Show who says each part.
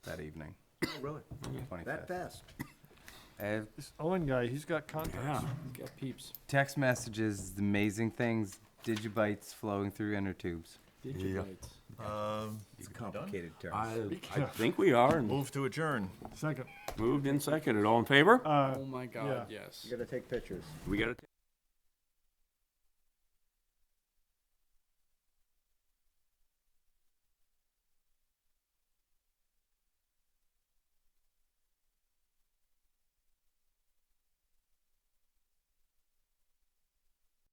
Speaker 1: that evening,
Speaker 2: Really? That
Speaker 1: 25th.
Speaker 2: fast?
Speaker 1: Uh,
Speaker 3: This Owen guy, he's got contacts.
Speaker 4: Got peeps.
Speaker 1: text messages, amazing things, digibytes flowing through inner tubes.
Speaker 4: Digibytes.
Speaker 2: It's complicated term.
Speaker 5: I, I
Speaker 3: Yeah.
Speaker 5: think we are, and
Speaker 6: Move to adjourn.
Speaker 3: Second.
Speaker 5: moved and seconded. All in favor?
Speaker 3: Uh,
Speaker 4: Oh my God, yes.
Speaker 2: You gotta take pictures.
Speaker 5: We gotta.